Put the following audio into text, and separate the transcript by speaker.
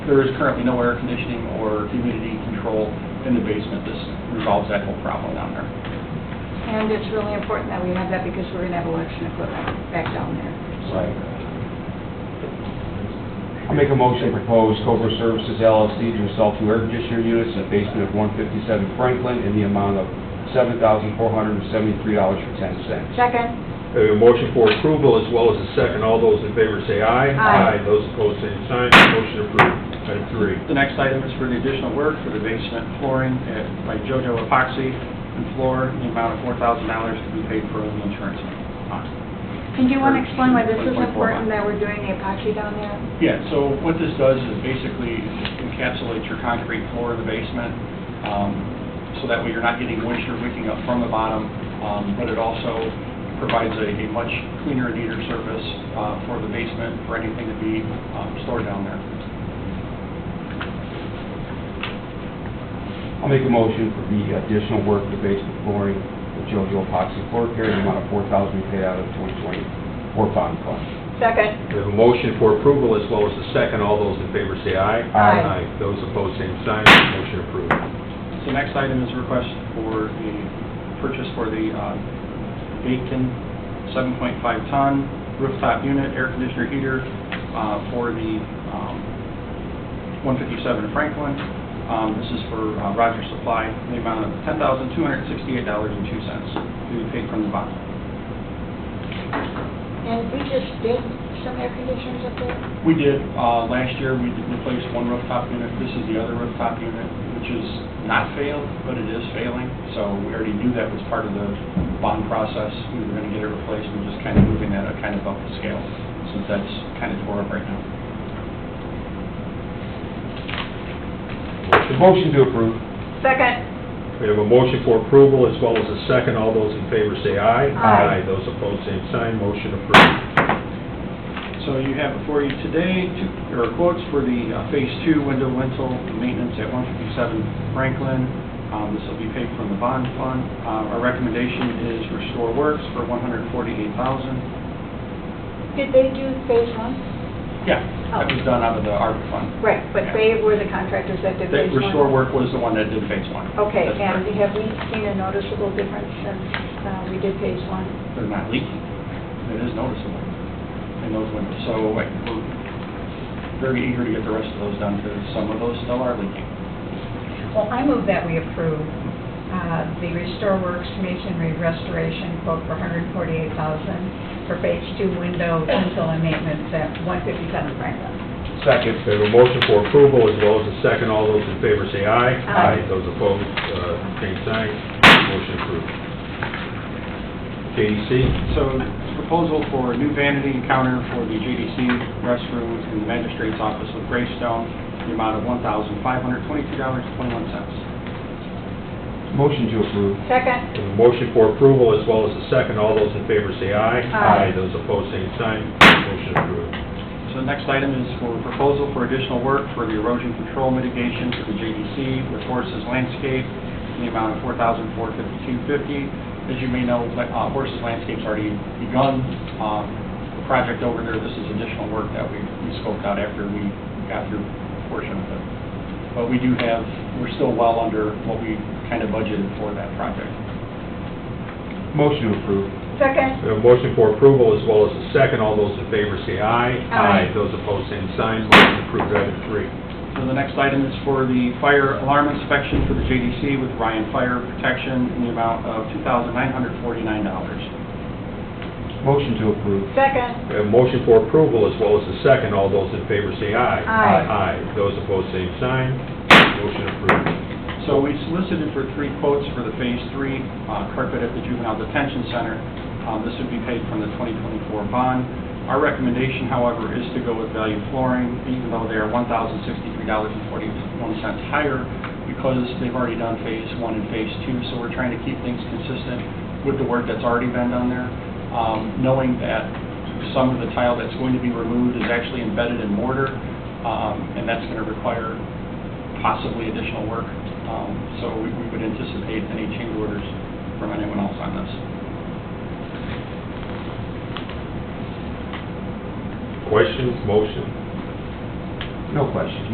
Speaker 1: there is currently no air conditioning or humidity control in the basement. This resolves that whole problem down there.
Speaker 2: And it's really important that we have that because we're going to have election equipment back down there.
Speaker 3: Right. I make a motion to propose Cobra Services LLC to install two air conditioner units in the basement of 157 Franklin in the amount of $7,473.10.
Speaker 2: Second,
Speaker 4: We have a motion for approval as well as a second. All those in favor say aye.
Speaker 2: Aye.
Speaker 4: Those opposed, same sign. Motion approved. Item three.
Speaker 1: The next item is for the additional work for the basement flooring at- by JoJo Epoxy and floor in the amount of $4,000 to be paid for in the insurance. fund.
Speaker 2: and do you want to explain why this is
Speaker 1: 1.4
Speaker 2: important that we're doing the epoxy down there?
Speaker 1: Yeah, so what this does is basically encapsulates your concrete floor of the basement, um, so that way you're not getting moisture leaking up from the bottom, um, but it also provides a a much cleaner and neater surface uh, for the basement, for anything to be um, stored down there.
Speaker 3: I'll make a motion for the additional work for the basement flooring with JoJo epoxy floor care in the amount of $4,000 to be paid out of 2024 bond fund.
Speaker 2: Second,
Speaker 4: We have a motion for approval as well as a second. All those in favor say aye.
Speaker 2: Aye.
Speaker 4: Those opposed, same sign. Motion approved.
Speaker 1: So next item is a request for the purchase for the uh, Bacon 7.5-ton rooftop unit, air conditioner heater uh, for the um, 157 Franklin. Um, This is for uh, Rogers Supply, in the amount of $10,268.02 to be paid from the bond.
Speaker 2: and we just did some air conditioners up there?
Speaker 1: We did, uh, last year, we did replace one rooftop unit. This is the other rooftop unit, which is not failed, but it is failing. So we already knew that was part of the bond process. We were going to get it replaced. We're just kind of moving that uh, kind of up the scale since that's kind of tore up right now.
Speaker 3: The motion to approve.
Speaker 2: Second,
Speaker 4: We have a motion for approval as well as a second. All those in favor say aye.
Speaker 2: Aye.
Speaker 4: Those opposed, same sign. Motion approved.
Speaker 1: So you have before you today, two- there are quotes for the uh, Phase 2 window lintel maintenance at 157 Franklin. Um, This will be paid from the bond fund. Uh, Our recommendation is Restore Works for $148,000.
Speaker 2: did they do phase one?
Speaker 1: Yeah, that was done out of the ARPA fund.
Speaker 2: Right, but they were the contractors that did
Speaker 1: That
Speaker 2: phase one?
Speaker 1: restore work was the one that did phase one.
Speaker 2: Okay,
Speaker 1: That's
Speaker 2: and
Speaker 1: correct.
Speaker 2: have we seen a noticeable difference since uh, we did phase one?
Speaker 1: They're not leaking. It is noticeable in those windows. So like, we're very eager to get the rest of those done because some of those still are leaking.
Speaker 5: Well, I move that we approve uh, the Restore Works Masonry Restoration quote for $148,000 for Phase 2 window tinsel and maintenance at 157 Franklin.
Speaker 3: Second.
Speaker 4: We have a motion for approval as well as a second. All those in favor say aye.
Speaker 5: Aye.
Speaker 4: Those opposed, uh, same sign. Motion approved. KDC?
Speaker 1: So this proposal for a new vanity and counter for the JDC restrooms in the magistrate's office of Greystone, the amount of $1,522.21.
Speaker 3: Motion to approve.
Speaker 2: Second,
Speaker 4: We have a Motion for approval as well as a second. All those in favor say aye.
Speaker 2: Aye.
Speaker 4: Those opposed, same sign. Motion approved.
Speaker 1: So the next item is for proposal for additional work for the erosion control mitigation for the JDC with Horses Landscape in the amount of $4,452.50. As you may know, uh, Horses Landscape's already begun um, the project over there. This is additional work that we we scoped out after we got through a portion of it. But we do have, we're still well under what we kind of budgeted for that project.
Speaker 3: Motion to approve.
Speaker 2: second,
Speaker 4: We have a motion for approval as well as a second. All those in favor say aye.
Speaker 2: Aye.
Speaker 4: Those opposed, same sign. Motion approved. Item three.
Speaker 1: So the next item is for the fire alarm inspection for the JDC with Ryan Fire Protection in the amount of $2,949.
Speaker 3: Motion to approve.
Speaker 2: second,
Speaker 4: We have a motion for approval as well as a second. All those in favor say aye.
Speaker 2: Aye.
Speaker 4: Those opposed, same sign. Motion approved.
Speaker 1: So we solicited for three quotes for the Phase 3 uh, carpet at the juvenile detention center. Um, This would be paid from the 2024 bond. Our recommendation, however, is to go with value flooring, even though they are $1,063.41 higher because they've already done Phase 1 and Phase 2, so we're trying to keep things consistent with the work that's already been done there, um, knowing that some of the tile that's going to be removed is actually embedded in mortar, um, and that's going to require possibly additional work. Um, So we we would anticipate any change orders from anyone else on this.
Speaker 4: Questions, motion?
Speaker 3: No questions.